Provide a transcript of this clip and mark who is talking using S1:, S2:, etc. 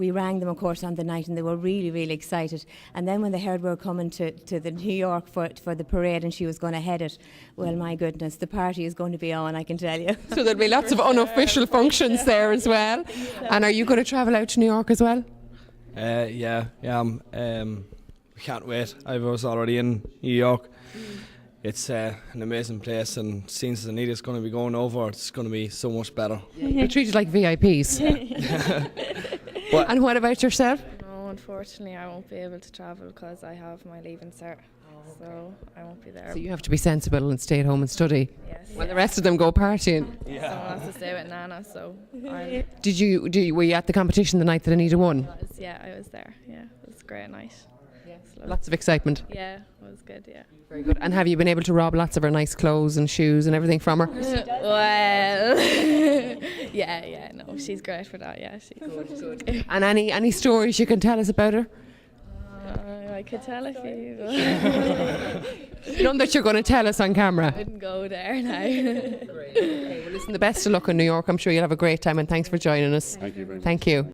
S1: we rang them, of course, on the night, and they were really, really excited. And then when they heard we were coming to, to the New York for, for the parade and she was going to head it, well, my goodness, the party is going to be on, I can tell you.
S2: So there'll be lots of unofficial functions there as well. And are you going to travel out to New York as well?
S3: Uh, yeah, yeah. Um, um, we can't wait. I was already in New York. It's uh, an amazing place, and since Anita's going to be going over, it's going to be so much better.
S2: You're treated like VIPs.
S3: But-
S2: and what about yourself?
S4: No, unfortunately, I won't be able to travel because I have my leaving cert. So I won't be there.
S2: So you have to be sensible and stay at home and study.
S4: yes.
S2: While the rest of them go partying.
S4: Someone has to stay with Nana, so I
S2: Did you, do you were you at the competition the night that Anita won?
S4: was, yeah, I was there. Yeah, it was a great night.
S2: Lots of excitement.
S4: Yeah, it was good, yeah.
S2: Very good. And have you been able to rob lots of her nice clothes and shoes and everything from her?
S4: well, yeah, yeah, no, she's great for that, yeah. She's good.
S2: And any any stories you can tell us about her?
S4: Uh, I could tell if you but
S2: None that you're going to tell us on camera.
S4: wouldn't go there now.
S2: Listen, the best of luck in New York. I'm sure you'll have a great time. And thanks for joining us. Thank you. Very much. Thank you.